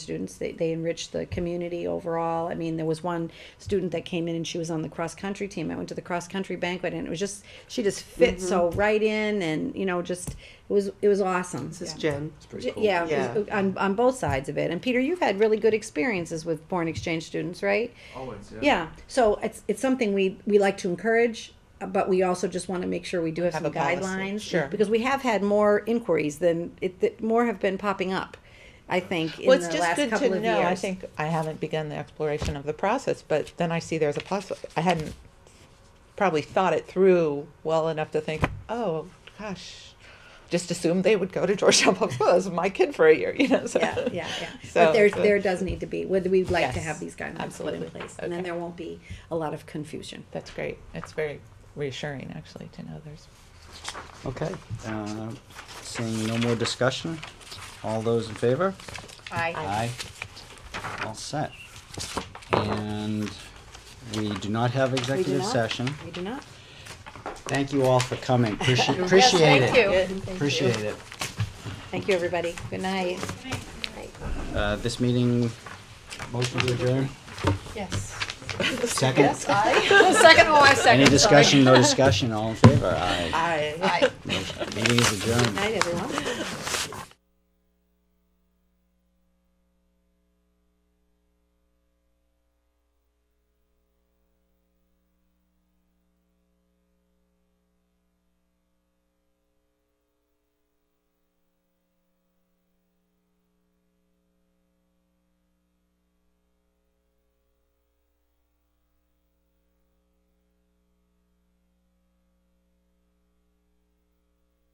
students. They, they enriched the community overall. I mean, there was one student that came in and she was on the cross country team. I went to the cross country banquet and it was just she just fit so right in and you know just it was it was awesome. This is Jen. It's pretty cool. Yeah, Yeah. it was- on on both sides of it. And Peter, you've had really good experiences with foreign exchange students, right? Always, yeah. Yeah. So it's it's something we we like to encourage, uh, but we also just want to make sure we do have, Have some a policy. guidelines. Sure. Because we have had more inquiries than it that more have been popping up. I think in Well, it's the just last good couple to of know. years. I think I haven't begun the exploration of the process, but then I see there's a possible. I hadn't probably thought it through well enough to think, oh gosh, just assumed they would go to Georgetown Public School. That was my kid for a year, you know. So. yeah, yeah, yeah. So but there, it's a- there does need to be. Whether we'd like to Yes, have these guidelines put absolutely. in place, and then Okay. there won't be a lot of confusion. That's great. It's very reassuring, actually, to know there's. Okay, uh, seeing no more discussion, all those in favor? Aye. All set. And we do not have We do executive not- session. We do not. Thank you all for coming, appreciate, appreciate it. Appreciate it. Thank you, everybody. Good night. Uh, this meeting, motion to adjourn, Yes. second? Second or my second. Any discussion, no discussion, all in favor? Aye. Aye. Aye. Meeting is adjourned. Good night, everyone.